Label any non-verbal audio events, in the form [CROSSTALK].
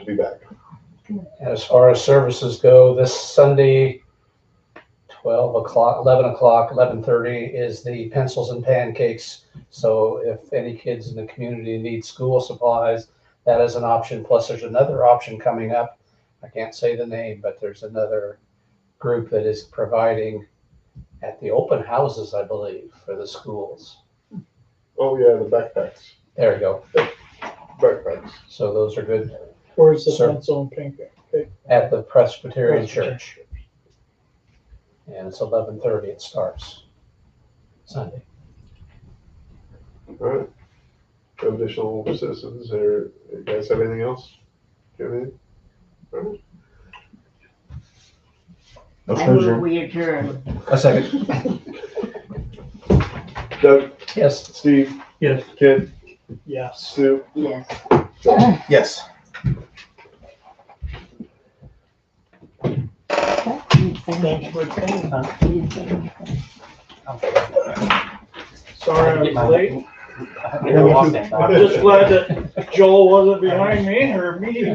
to be back. As far as services go, this Sunday, twelve o'clock, eleven o'clock, eleven thirty is the pencils and pancakes. So if any kids in the community need school supplies, that is an option. Plus, there's another option coming up. I can't say the name, but there's another group that is providing at the open houses, I believe, for the schools. Oh, yeah, the backpacks, There you go. backpacks. So those are good Where's the Sir. pencil and pancake? at the Presbyterian Presbyterian. Church. And it's eleven thirty, it starts Sunday. All right. Additional citizens or you guys have anything else? Do you have anything? I move we adjourn. A second. Doug, Yes, Steve, Yes. Ken, Yes. Sue, Yes. Yes. Thanks for attending, huh? I had Sorry to get I my- was late. I had to walk that I'm [LAUGHS] dog. just glad that Joel wasn't behind me in her meeting.